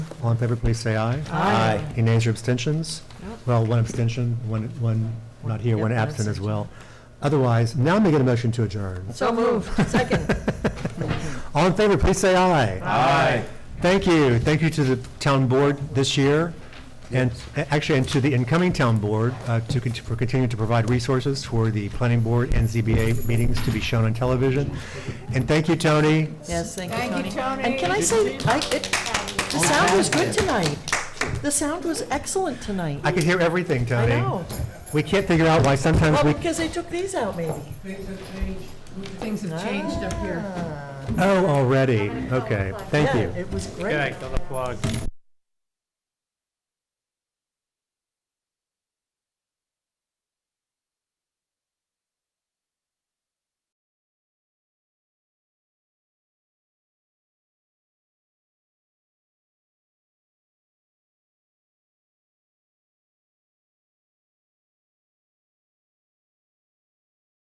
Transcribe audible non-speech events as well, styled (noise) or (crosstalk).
All in favor, please say aye. Aye. Aye. Any nays or abstentions? Nope. Well, one abstention, one, one not here, Yeah, one one absent as abstention. well. Otherwise, now I'm making a motion to adjourn. So moved. (laughs) Second. (laughs) All in favor, please say aye. Aye. Thank you. Thank you to the town board this year, and a- actually, and to the incoming town board, uh, to, cont- for continuing to provide resources for the planning board and ZBA meetings to be shown on television. And thank you, Tony. Yes, thank you, Tony. And can I say, I, it, the sound was good tonight. The sound was excellent tonight. I could hear everything, I Tony. know. We can't figure out why sometimes Well, we, because they took these out, maybe. Things have changed up here. oh, already. Okay, thank Yeah, you. It was great. Good night, don't applaud.